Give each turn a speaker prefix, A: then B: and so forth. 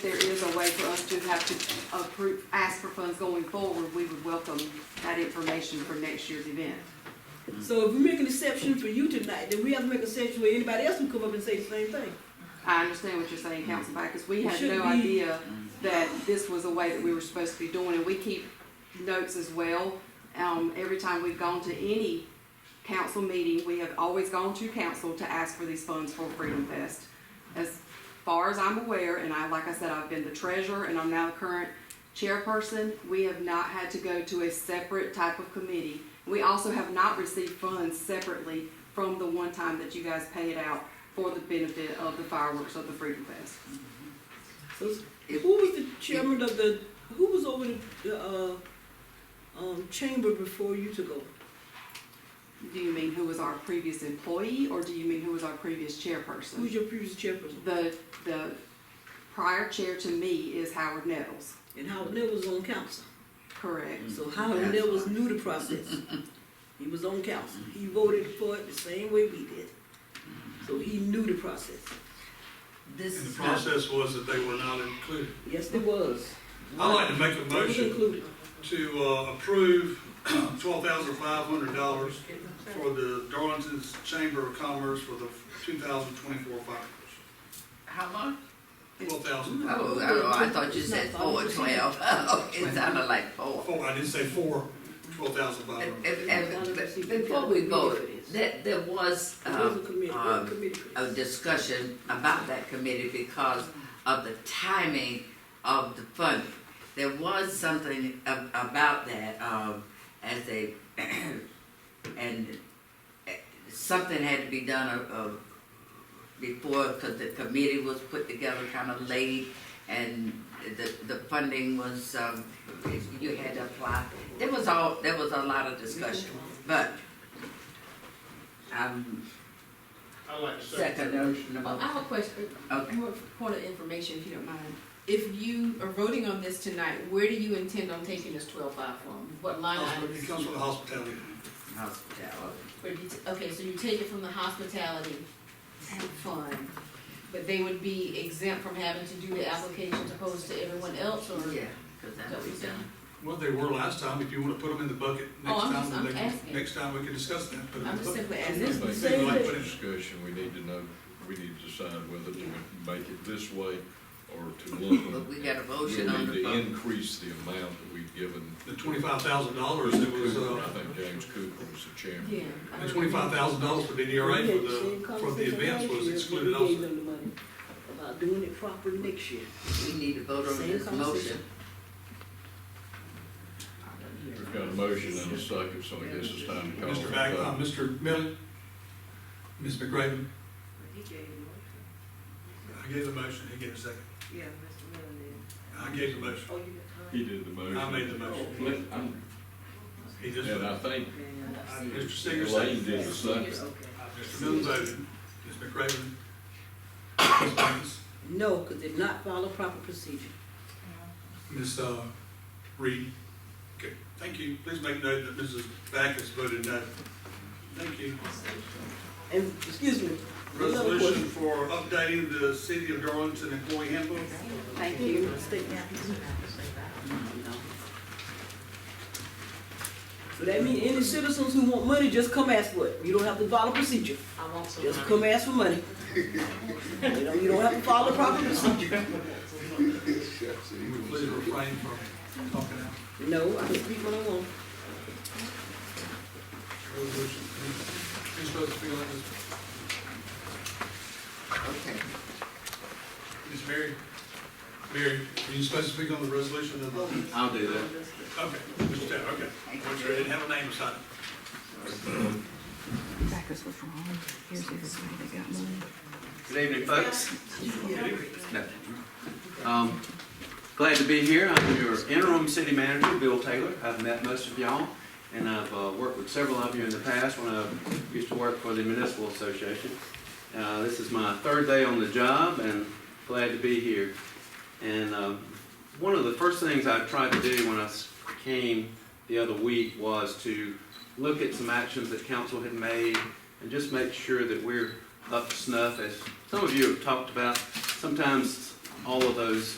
A: a way for us to have to approve, ask for funds going forward, we would welcome that information for next year's event.
B: So if we make an exception for you tonight, then we have to make an exception where anybody else can come up and say the same thing.
A: I understand what you're saying, Council Backus, we
B: It
A: had
B: should
A: no
B: be-
A: idea that this was a way that we were supposed to be doing, and we keep notes as well. Um, every time we've gone to any council meeting, we have always gone to council to ask for these funds for Freedom Fest. As far as I'm aware, and I, like I said, I've been the treasurer and I'm now the current chairperson, we have not had to go to a separate type of committee. We also have not received funds separately from the one time that you guys paid out for the benefit of the fireworks of the Freedom Fest.
B: So it's- who was the chairman of the, who was over the, the, uh, um, chamber before you took over?
A: Do you mean who was our previous employee, or do you mean who was our previous
B: Who was
A: chairperson?
B: your previous chairperson?
A: The, the prior chair to me is Howard Nettles,
B: And Howard Neal was on council.
A: correct?
B: So Howard Neal was new to process. He was on council. He voted for it the same way we did. So he knew the process.
C: This
D: And the
C: is not,
D: process was that they were not included.
B: Yes, it was.
D: I'd like to make a
B: It was
D: motion
B: included.
D: to uh, approve twelve thousand five hundred dollars for the Darlington's Chamber of Commerce for the two thousand twenty-four fireworks.
C: how long?
D: Twelve thousand.
C: Oh, oh, I thought you said four twelve. Oh, it sounded like four.
D: Four, I didn't say four, twelve thousand five
C: If-
D: hundred.
C: if- if- Before we go, that, there was,
B: It was a
C: um,
B: committee, it was a
C: um,
B: committee.
C: a discussion about that committee because of the timing of the funding. There was something a- about that, um, as they, and eh, something had to be done uh, uh, before, because the committee was put together kind of late, and the, the funding was, um, you had to apply. There was all, there was a lot of discussion, but I'm
E: I like to
C: second notion
F: Well,
C: about.
F: I have a question,
C: Okay.
F: more point of information, if you don't mind. If you are voting on this tonight, where do you intend on taking this twelve five from? What line item?
D: It comes from the hospitality.
C: Hospitality.
F: Where do you t- Okay, so you take it from the hospitality fund, but they would be exempt from having to do the applications opposed to everyone else, or?
C: Yeah, because
F: Is
C: that
F: that what
C: was
F: you're saying?
C: done.
D: Well, they were last time. If you want to put them in the bucket
F: Oh,
D: next
F: I'm just-
D: time,
F: I'm
D: they can-
F: asking.
D: next time we can discuss that. Put 'em in
F: I'm
D: the
F: just
D: bucket.
F: simply
G: I
F: asking.
B: This is
G: think
B: the
G: in
B: same
G: that
B: thing.
G: Discussion, we need to know, we need to decide whether to make it this way or to lump them.
C: But we got a motion
G: We
C: on
G: need
C: the
G: to
C: floor.
G: increase the amount that we've given.
D: The twenty-five thousand dollars, it was,
G: Cooper.
D: uh,
G: I think James Cooper was the chairman.
F: Yeah. I
D: the
F: don't-
D: twenty-five thousand dollars for DDRA
B: We had the same
D: for the, for uh, the
B: conversation last
D: events was
B: year,
D: excluded
B: we
D: also.
B: gave them the money About doing it proper next year.
C: We need to vote on
B: Same
C: this motion.
B: conversation.
G: We've got a motion and a second, so I guess it's time to call.
D: Mr.
G: for
D: Back,
G: a vote.
D: uh, Mr. Miller, Ms. McRaven, I gave the motion, he gave a second.
B: Yeah, Mr. Miller did.
D: I gave the motion,
B: Oh, you
G: He did the motion.
D: I made the motion.
G: Let- I'm-
D: he just,
G: And I
D: voted.
G: think
D: Uh, Mr. Singer
G: Elaine
D: seconded,
G: did the second.
D: Mr. Miller voted, Ms. McRaven, Ms. Banks,
B: No, because they did not follow proper procedure.
D: Ms. uh, Reed. Okay, thank you, please make note that Mrs. Back has voted no. Thank you.
B: And, excuse me. another
D: Resolution for updating the City of Darlington employee handbook.
A: Thank
B: question.
A: you.
B: State. So that means any citizens who want money, just come ask for it. You don't have to follow procedure.
F: I want some.
B: Just come ask for money. You don't, you don't have to follow the proper procedure.
D: Please refrain from talking out.
B: No, I can speak when I want.
D: Resolution. You're supposed to feel like this.
C: Okay.
D: Ms. Mary? Mary, are you supposed to speak on the resolution of the?
H: I'll do that.
D: Okay, Mr. Taylor, okay. Make sure I didn't have a name assigned.
I: Backus was wrong. Here's everybody that got money.
H: Good evening, folks. No. Um, Glad to be here. I'm your interim city manager, Bill Taylor. I've met most of y'all, and I've uh, worked with several of you in the past when I used to work for the municipal association. Uh, This is my third day on the job, and glad to be here. And um, one of the first things I tried to do when I s- came the other week was to look at some actions that council had made and just make sure that we're up to snuff, as some of you have talked about, sometimes all of those